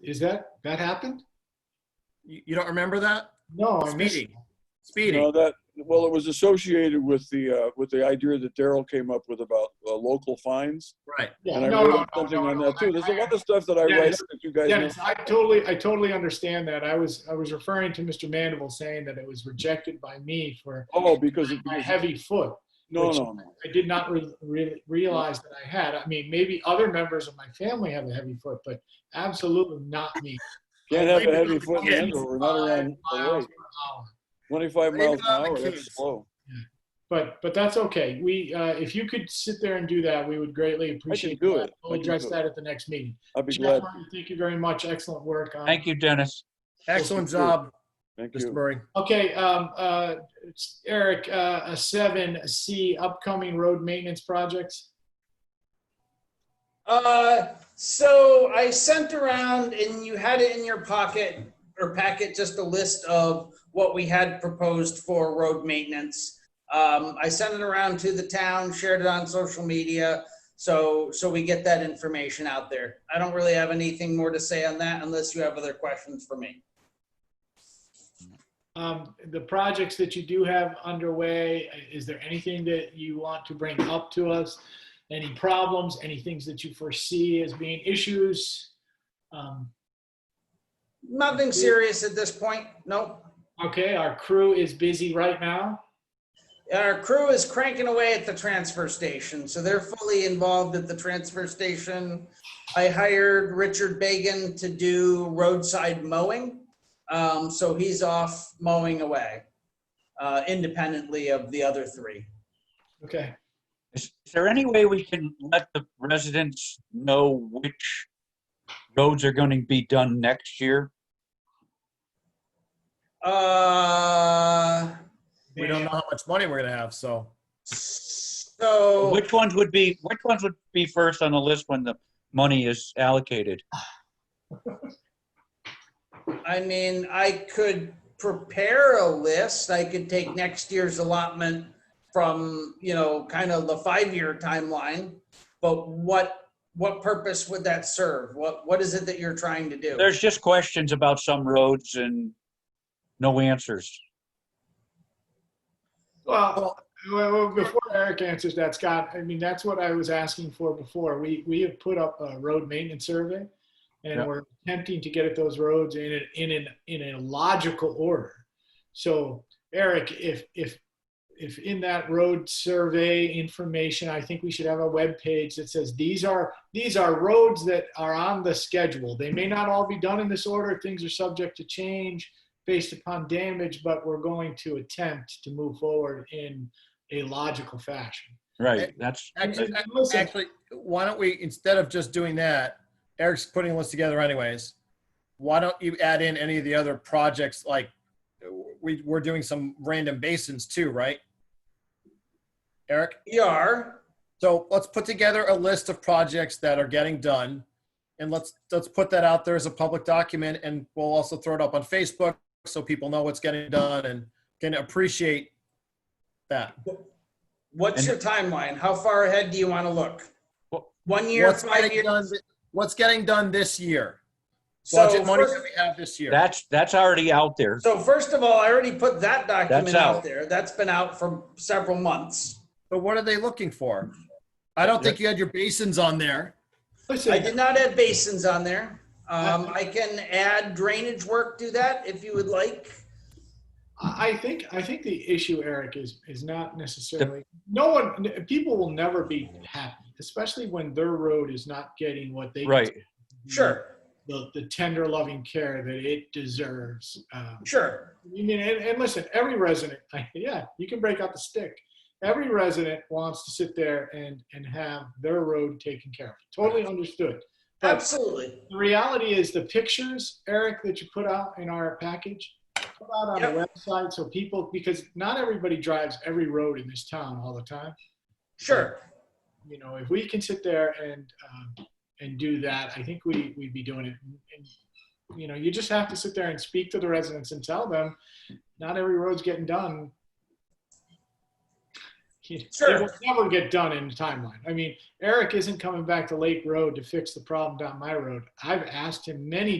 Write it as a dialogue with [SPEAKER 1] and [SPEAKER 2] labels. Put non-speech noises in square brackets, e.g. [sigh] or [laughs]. [SPEAKER 1] Is that, that happened?
[SPEAKER 2] You you don't remember that?
[SPEAKER 1] No, I missed.
[SPEAKER 2] Speeding. Speeding.
[SPEAKER 3] No, that, well, it was associated with the, uh, with the idea that Daryl came up with about uh, local fines.
[SPEAKER 2] Right.
[SPEAKER 1] Yeah,
[SPEAKER 3] And I
[SPEAKER 1] no, no,
[SPEAKER 3] wrote
[SPEAKER 1] no,
[SPEAKER 3] something
[SPEAKER 1] no,
[SPEAKER 3] on
[SPEAKER 1] no,
[SPEAKER 3] that too.
[SPEAKER 1] I-
[SPEAKER 3] There's a
[SPEAKER 1] I-
[SPEAKER 3] lot of stuff that I write
[SPEAKER 1] Dennis,
[SPEAKER 3] that you guys know.
[SPEAKER 1] Dennis, I totally, I totally understand that. I was, I was referring to Mr. Mandeville saying that it was rejected by me for
[SPEAKER 3] Oh, because, it-
[SPEAKER 1] my
[SPEAKER 3] because-
[SPEAKER 1] heavy foot.
[SPEAKER 3] no,
[SPEAKER 1] which-
[SPEAKER 3] no, no.
[SPEAKER 1] I did not re- re- realize that I had. I mean, maybe other members of my family have a heavy foot, but absolutely not me.
[SPEAKER 3] Can't have a
[SPEAKER 1] Maybe
[SPEAKER 3] heavy foot in
[SPEAKER 2] Yeah.
[SPEAKER 3] Andover, not around the
[SPEAKER 1] Miles
[SPEAKER 3] lake.
[SPEAKER 1] per hour.
[SPEAKER 3] Twenty-five
[SPEAKER 2] Blame
[SPEAKER 3] miles
[SPEAKER 2] it
[SPEAKER 3] an
[SPEAKER 2] on the
[SPEAKER 3] hour,
[SPEAKER 2] kids.
[SPEAKER 3] that's slow.
[SPEAKER 1] But but that's okay. We uh, if you could sit there and do that, we would greatly appreciate
[SPEAKER 3] do
[SPEAKER 1] that.
[SPEAKER 3] it. I
[SPEAKER 1] We'll
[SPEAKER 3] can
[SPEAKER 1] address
[SPEAKER 3] do it.
[SPEAKER 1] that at the next meeting.
[SPEAKER 3] I'd be
[SPEAKER 1] Jeff
[SPEAKER 3] glad.
[SPEAKER 1] Martin, thank you very much. Excellent work. On,
[SPEAKER 4] Thank you, Dennis.
[SPEAKER 2] Excellent job,
[SPEAKER 3] Thank
[SPEAKER 2] Mr.
[SPEAKER 3] you.
[SPEAKER 2] Murray.
[SPEAKER 1] Okay, um, uh, it's Eric, uh, a seven C upcoming road maintenance projects.
[SPEAKER 5] Uh, so I sent around and you had it in your pocket or packet, just a list of what we had proposed for road maintenance. Um, I sent it around to the town, shared it on social media, so, so we get that information out there. I don't really have anything more to say on that unless you have other questions for me.
[SPEAKER 1] Um, the projects that you do have underway, is there anything that you want to bring up to us? Any problems, any things that you foresee as being issues? Um,
[SPEAKER 5] Nothing serious at this point, nope.
[SPEAKER 1] okay, our crew is busy right now.
[SPEAKER 5] Our crew is cranking away at the transfer station, so they're fully involved at the transfer station. I hired Richard Bagan to do roadside mowing, um, so he's off mowing away, uh, independently of the other three.
[SPEAKER 1] Okay.
[SPEAKER 4] Is is there any way we can let the residents know which roads are going to be done next year?
[SPEAKER 5] Uh,
[SPEAKER 2] We don't know how much money we're gonna have, so.
[SPEAKER 5] so,
[SPEAKER 4] Which ones would be, which ones would be first on the list when the money is allocated?
[SPEAKER 5] I mean, I could prepare a list, I could take next year's allotment from, you know, kind of the five-year timeline. But what, what purpose would that serve? What, what is it that you're trying to do?
[SPEAKER 4] There's just questions about some roads and no answers.
[SPEAKER 1] Well, well, well, before Eric answers that, Scott, I mean, that's what I was asking for before. We, we have put up a road maintenance survey and
[SPEAKER 4] Yeah.
[SPEAKER 1] we're attempting to get at those roads in, a- in, an in a logical order. So Eric, if, if, if in that road survey information, I think we should have a web page that says, these are, these are roads that are on the schedule. They may not all be done in this order. Things are subject to change based upon damage, but we're going to attempt to move forward in a logical fashion.
[SPEAKER 4] Right, that's,
[SPEAKER 2] Actually,
[SPEAKER 1] And Listen,
[SPEAKER 2] actually, why don't we, instead of just doing that, Eric's putting a list together anyways. Why don't you add in any of the other projects, like, we, we're doing some random basins too, right? Eric?
[SPEAKER 5] ER,
[SPEAKER 2] So let's put together a list of projects that are getting done and let's, let's put that out there as a public document and we'll also throw it up on Facebook so people know what's getting done and can appreciate that.
[SPEAKER 5] what's your timeline? How far ahead do you want to look?
[SPEAKER 4] Well,
[SPEAKER 5] One year,
[SPEAKER 2] What's
[SPEAKER 5] five
[SPEAKER 2] getting
[SPEAKER 5] years?
[SPEAKER 2] done, what's getting done this year?
[SPEAKER 5] So,
[SPEAKER 2] Budget money
[SPEAKER 5] first-
[SPEAKER 2] that we have this year.
[SPEAKER 4] that's, that's already out there.
[SPEAKER 5] so first of all, I already put that document out
[SPEAKER 4] out.
[SPEAKER 5] there. That's been out for several months.
[SPEAKER 2] But what are they looking for? I don't think you had your basins on there.
[SPEAKER 5] I
[SPEAKER 1] listen,
[SPEAKER 5] did not add basins on there. Um, I can add drainage work to that if you would like.
[SPEAKER 1] I I think, I think the issue, Eric, is, is not necessarily, no one, n- people will never be happy, especially when their road is not getting what they.
[SPEAKER 4] Right,
[SPEAKER 5] Sure,
[SPEAKER 1] The, the tender loving care that it deserves. Um,
[SPEAKER 5] sure.
[SPEAKER 1] You mean, and, and listen, every resident, [laughs] yeah, you can break out the stick. Every resident wants to sit there and, and have their road taken care of. Totally understood. But
[SPEAKER 5] Absolutely.
[SPEAKER 1] the reality is the pictures, Eric, that you put out in our package, put out on the website so people, because not everybody drives every road in this town all the time.
[SPEAKER 5] Sure.
[SPEAKER 1] You know, if we can sit there and, um, and do that, I think we, we'd be doing it. And, you know, you just have to sit there and speak to the residents and tell them, not every road's getting done. [laughs] It
[SPEAKER 5] Sure.
[SPEAKER 1] will never get done in the timeline. I mean, Eric isn't coming back to Lake Road to fix the problem down my road. I've asked him many